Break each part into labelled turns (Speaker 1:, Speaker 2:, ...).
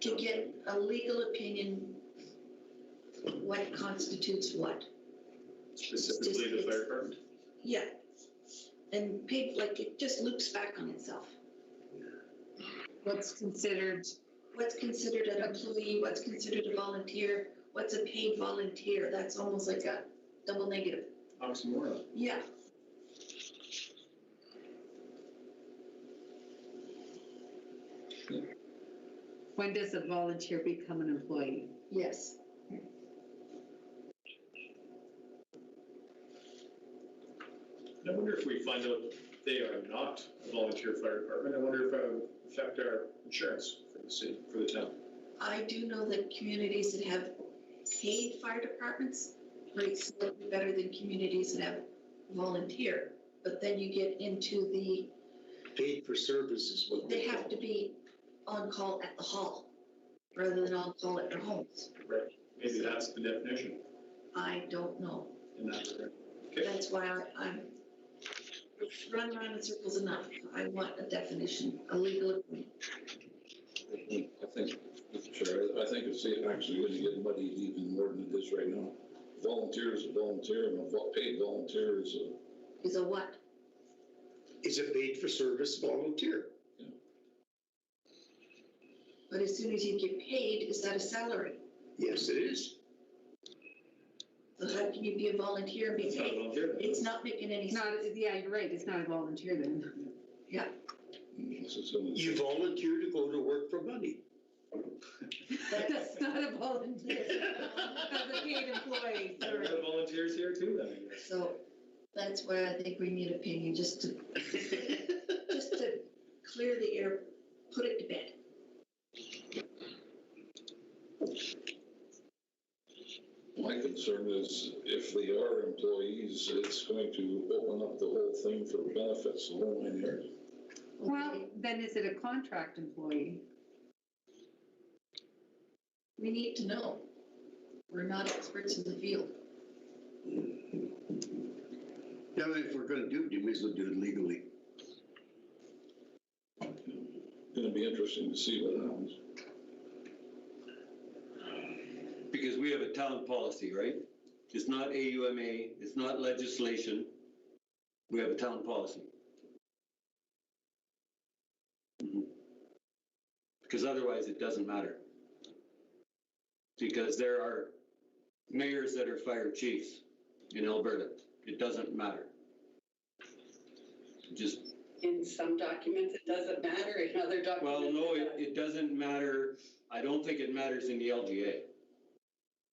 Speaker 1: to get a legal opinion, what constitutes what?
Speaker 2: Specifically the fire department?
Speaker 1: Yeah. And people, like, it just loops back on itself.
Speaker 3: what's considered,
Speaker 1: What's considered an employee, what's considered a volunteer, what's a paid volunteer? That's almost like a double negative.
Speaker 2: Oxymoron.
Speaker 1: Yeah.
Speaker 3: when does a volunteer become an employee?
Speaker 1: Yes.
Speaker 2: I wonder if we find out they are not a volunteer fire department, I wonder if that would affect our insurance for the city, for the town.
Speaker 1: I do know that communities that have paid fire departments rate slightly better than communities that have volunteer. But then you get into the,
Speaker 4: Paid for service is what
Speaker 1: they
Speaker 4: we
Speaker 1: have
Speaker 4: call.
Speaker 1: to be on call at the hall rather than on call at their homes.
Speaker 2: Maybe that's the definition
Speaker 1: I don't know.
Speaker 2: in that regard. Okay,
Speaker 1: That's why I- I'm run around in circles enough. I want a definition, a legal. opinion.
Speaker 5: I think, Mr. Chair, I think it's actually going to get muddied even more than it is right now. Volunteer is a volunteer, and a vo- paid volunteer is a,
Speaker 1: Is a what?
Speaker 4: Is it paid for service volunteer?
Speaker 1: But as soon as you get paid, is that a salary?
Speaker 4: Yes, it is.
Speaker 1: So how can you be a volunteer and be
Speaker 2: it's not a
Speaker 1: paid?
Speaker 2: volunteer. then.
Speaker 1: It's not making any
Speaker 3: It's
Speaker 1: sense.
Speaker 3: not, yeah, you're right, it's not a volunteer then.
Speaker 5: this is in
Speaker 4: You volunteer to go to work for money.
Speaker 3: That's not a volunteer, that's a paid employee,
Speaker 2: There
Speaker 3: sorry.
Speaker 2: are volunteers here too, then, I guess.
Speaker 1: So that's where I think we need opinion, just to, just to clear the air, put it to bed.
Speaker 5: My concern is if they are employees, it's going to open up the whole thing for benefits, the whole nine yards.
Speaker 3: Well, then is it a contract employee?
Speaker 1: We need to know. We're not experts in the field.
Speaker 4: Now, if we're gonna do it, you may as well do it legally.
Speaker 5: Going to be interesting to see what happens.
Speaker 6: Because we have a town policy, right? It's not AUMA, it's not legislation. We have a town policy. Mhm. Because otherwise, it doesn't matter. Because there are mayors that are fire chiefs in Alberta. It doesn't matter. Just
Speaker 7: In some documents, it doesn't matter, in other documents.
Speaker 6: well, no,
Speaker 7: it
Speaker 6: it,
Speaker 7: does.
Speaker 6: it doesn't matter, I don't think it matters in the LGA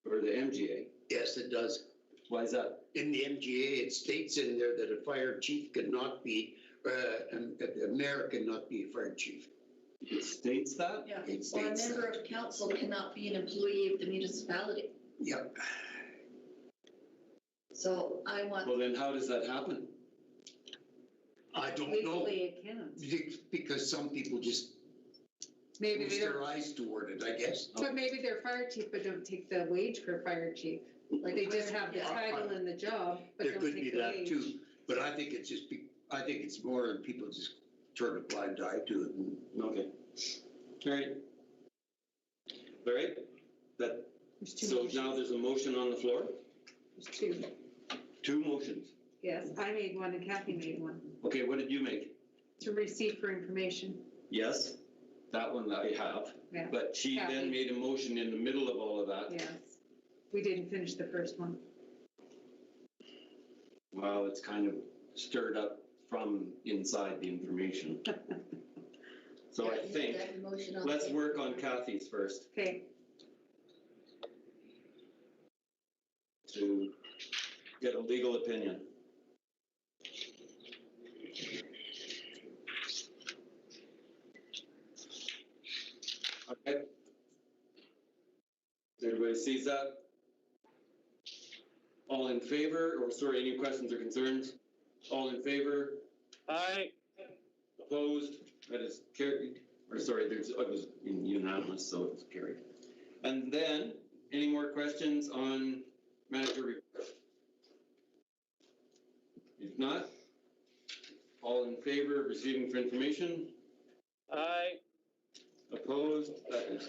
Speaker 6: or the MGA.
Speaker 4: Yes, it does.
Speaker 6: Why is that?
Speaker 4: In the MGA, it states in there that a fire chief could not be, uh, um, that the mayor cannot be a fire chief.
Speaker 6: It states that?
Speaker 1: Yeah.
Speaker 4: It
Speaker 1: Or a
Speaker 4: states
Speaker 1: member
Speaker 4: that.
Speaker 1: of council cannot be an employee of the municipality.
Speaker 4: Yep.
Speaker 1: So I
Speaker 6: Well,
Speaker 1: want,
Speaker 6: then how does that happen?
Speaker 4: I don't know,
Speaker 3: Legally, it can't.
Speaker 4: because some people just
Speaker 3: Maybe
Speaker 4: close
Speaker 3: they
Speaker 4: their
Speaker 3: don't,
Speaker 4: eyes toward it, I guess.
Speaker 3: but maybe they're fire chief, but don't take the wage for fire chief.
Speaker 1: like.
Speaker 3: They just have the
Speaker 1: Yeah.
Speaker 3: title and the job, but
Speaker 4: There
Speaker 3: don't
Speaker 4: could be
Speaker 3: take the
Speaker 4: that
Speaker 3: wage.
Speaker 4: too, but I think it's just, be- I think it's more than people just turn a blind eye to it. and-
Speaker 6: Okay. All right. All right, that,
Speaker 3: There's two
Speaker 6: so now
Speaker 3: motions.
Speaker 6: there's a motion on the floor,
Speaker 3: There's two,
Speaker 6: two motions.
Speaker 3: yes, I made one and Kathy made one,
Speaker 6: Okay, what did you make?
Speaker 3: to receive for information.
Speaker 6: Yes, that one that I
Speaker 3: Yeah.
Speaker 6: have, but she
Speaker 3: Kathy.
Speaker 6: then made a motion in the middle of all of that.
Speaker 3: Yes, we didn't finish the first one.
Speaker 6: Well, it's kind of stirred up from inside the information. So I
Speaker 1: Yeah, you
Speaker 6: think,
Speaker 1: have that motion on
Speaker 6: let's
Speaker 1: the-
Speaker 6: work on Kathy's first
Speaker 3: Okay,
Speaker 6: to get a legal opinion. Okay. Everybody sees that? All in favor, or sorry, any questions or concerns? All in favor?
Speaker 8: Aye,
Speaker 6: Opposed, that is carried, or sorry, there's, oh, it was unanimous, so it's carried. And then, any more questions on manager report? If not, all in favor of receiving for information,
Speaker 8: aye.
Speaker 6: opposed, that is